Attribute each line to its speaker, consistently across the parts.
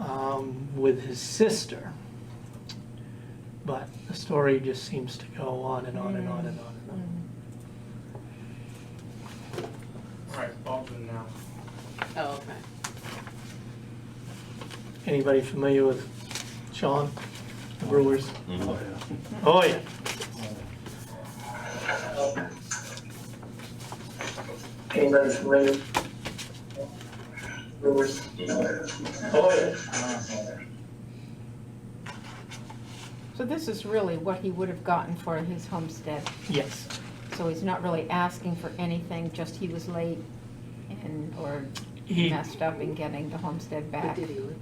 Speaker 1: um, with his sister. But the story just seems to go on and on and on and on and on.
Speaker 2: All right, Baldwin now.
Speaker 3: Oh, okay.
Speaker 1: Anybody familiar with Sean, the Brewers?
Speaker 4: Mhm.
Speaker 1: Oh, yeah.
Speaker 5: Anybody familiar? Brewers? Oh, yeah.
Speaker 6: So this is really what he would have gotten for his homestead.
Speaker 1: Yes,
Speaker 6: So he's not really asking for anything, just he was late and, or
Speaker 1: He-
Speaker 6: messed up in getting the homestead
Speaker 3: But
Speaker 6: back.
Speaker 3: did he live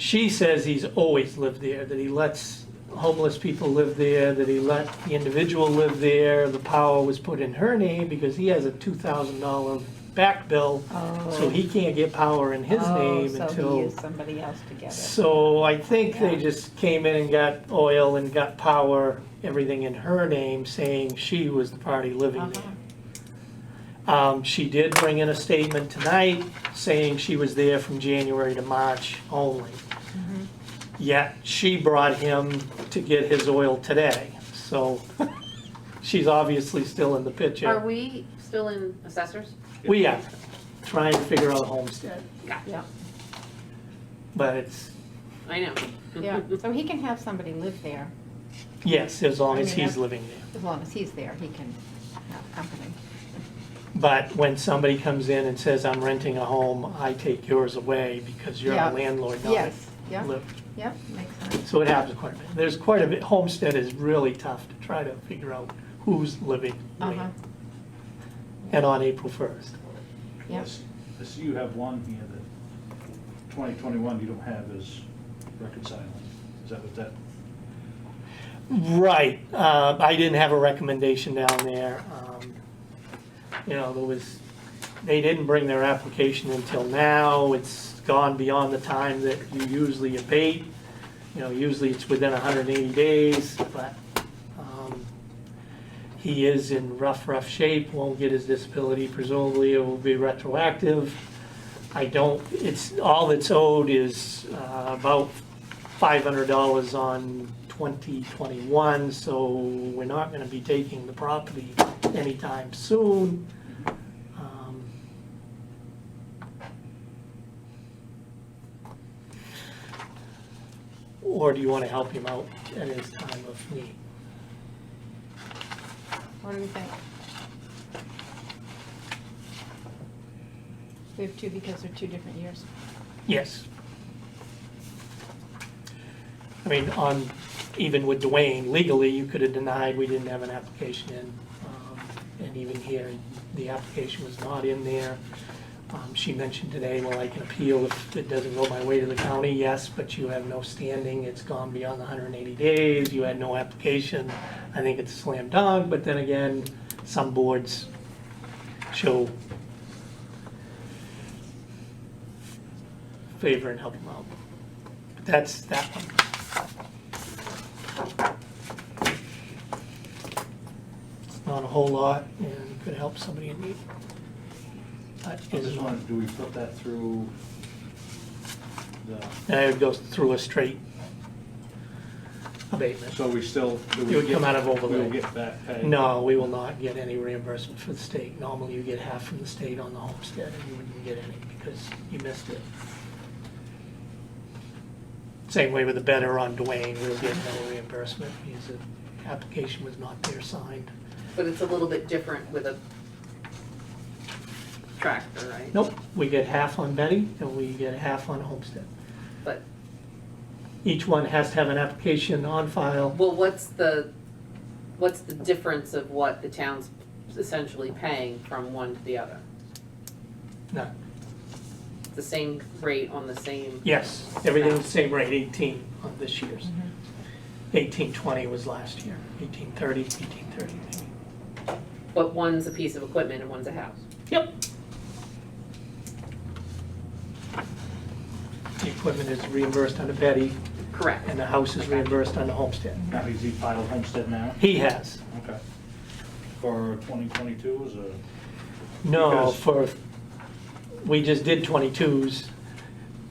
Speaker 1: she says he's always lived there, that he lets homeless people live there, that he let the individual live there. The power was put in her name because he has a two thousand dollar back bill, so
Speaker 6: Oh.
Speaker 1: he can't get power in his
Speaker 6: Oh,
Speaker 1: name until.
Speaker 6: So he used somebody else to get it.
Speaker 1: So I think they
Speaker 6: Yeah.
Speaker 1: just came in and got oil and got power, everything in her name, saying she was the party living
Speaker 6: Uh-huh.
Speaker 1: there. Um, she did bring in a statement tonight saying she was there from January to March only.
Speaker 6: Mm-hmm.
Speaker 1: Yet she brought him to get his oil today, so she's obviously still in the
Speaker 3: there? Are
Speaker 1: picture.
Speaker 3: we still in assessors?
Speaker 1: We are trying to figure out a homestead,
Speaker 6: Yeah,
Speaker 1: but it's,
Speaker 3: I know.
Speaker 6: yeah, so he can have somebody live there,
Speaker 1: yes, as long
Speaker 6: I
Speaker 1: as
Speaker 6: mean,
Speaker 1: he's
Speaker 6: that's-
Speaker 1: living there.
Speaker 6: as long as he's there, he can have company.
Speaker 1: But when somebody comes in and says, I'm renting a home, I take yours away because you're a
Speaker 6: Yeah.
Speaker 1: landlord, not
Speaker 6: Yes,
Speaker 1: a
Speaker 6: yeah,
Speaker 1: lip.
Speaker 6: yeah, makes sense.
Speaker 1: So it happens quite a bit. There's quite a bit, homestead is really tough to try to figure out who's living
Speaker 6: Uh-huh,
Speaker 1: where. And on April 1st,
Speaker 6: yeah,
Speaker 7: This, you have one here that 2021 you don't have is reconciling. Is that what that,
Speaker 1: Right, uh, I didn't have a recommendation down there. Um, You know, there was, they didn't bring their application until now, it's gone beyond the time that you usually abate. You know, usually it's within hundred and eighty days, but, um, he is in rough, rough shape, won't get his disability, presumably it will be retroactive. I don't, it's, all that's owed is, uh, about five hundred dollars on twenty twenty-one, so we're not gonna be taking the property anytime soon. Um, Or do you wanna help him out at his time of need?
Speaker 6: what do we think? We have two because they're two different years.
Speaker 1: Yes. I mean, on, even with Dwayne, legally, you could have denied we didn't have an application in. um, And even here, the application was not in there. Um, She mentioned today, well, I can appeal if it doesn't go my way to the county, yes, but you have no standing, it's gone beyond the 180 days, you had no application. I think it's a slam dunk, but then again, some boards show favor and help them out. But That's that one. It's not a whole lot and could help somebody in need. That
Speaker 7: I
Speaker 1: is
Speaker 7: just
Speaker 1: one.
Speaker 7: wanted, do we put that through the,
Speaker 1: Now it goes through a straight abatement.
Speaker 7: so we still, do we
Speaker 1: It would come out
Speaker 7: get-
Speaker 1: of overlay.
Speaker 7: We'll get back pay?
Speaker 1: No, we will not get any reimbursement from the state. Normally you get half from the state on the homestead and you wouldn't get any because you missed it. Same way with the better on Dwayne, we'll get no reimbursement because the application was not there signed.
Speaker 3: But it's a little bit different with a tractor, right?
Speaker 1: Nope, we get half on Betty and we get half on homestead.
Speaker 3: But,
Speaker 1: Each one has to have an application on file.
Speaker 3: well, what's the, what's the difference of what the town's essentially paying from one to the other?
Speaker 1: No,
Speaker 3: The same rate on the same,
Speaker 1: yes, everything's the same rate, 18 on this year's. 1820 was last year, 1830, 1830 maybe.
Speaker 3: but one's a piece of equipment and one's a house.
Speaker 1: Yep. The equipment is reimbursed under Betty,
Speaker 3: Correct.
Speaker 1: and the house is reimbursed under Homestead.
Speaker 7: Now, he's he filed homestead now?
Speaker 1: He has.
Speaker 7: Okay. For 2022 is a,
Speaker 1: No,
Speaker 7: Because-
Speaker 1: for, we just did 22s